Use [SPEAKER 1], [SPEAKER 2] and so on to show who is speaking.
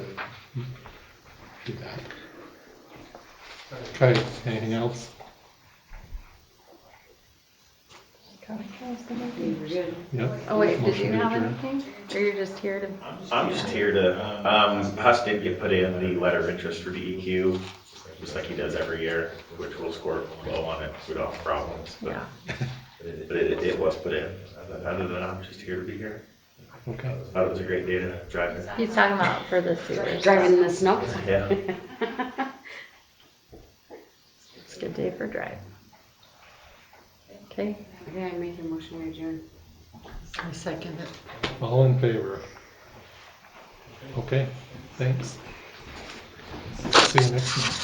[SPEAKER 1] Okay, anything else? Yep.
[SPEAKER 2] Oh, wait, did
[SPEAKER 1] Motion
[SPEAKER 2] you
[SPEAKER 1] to
[SPEAKER 2] have
[SPEAKER 1] adjourn.
[SPEAKER 2] anything? Or you're just here to?
[SPEAKER 3] I'm just here to, um, Huss did get put in the letter of interest for DEQ, just like he does every year, which will score low on it, we don't have problems. but-
[SPEAKER 2] Yeah.
[SPEAKER 3] But it, it was put in, other than I'm just here to be here.
[SPEAKER 1] Okay,
[SPEAKER 3] Thought it was a great day to drive it.
[SPEAKER 2] He's talking about for the sewers.
[SPEAKER 4] Driving in the snow?
[SPEAKER 3] Yeah,
[SPEAKER 2] It's a good day for drive. Okay,
[SPEAKER 4] Okay, I make a motion to adjourn.
[SPEAKER 5] I second it.
[SPEAKER 1] all in favor? Okay, thanks. See you next month.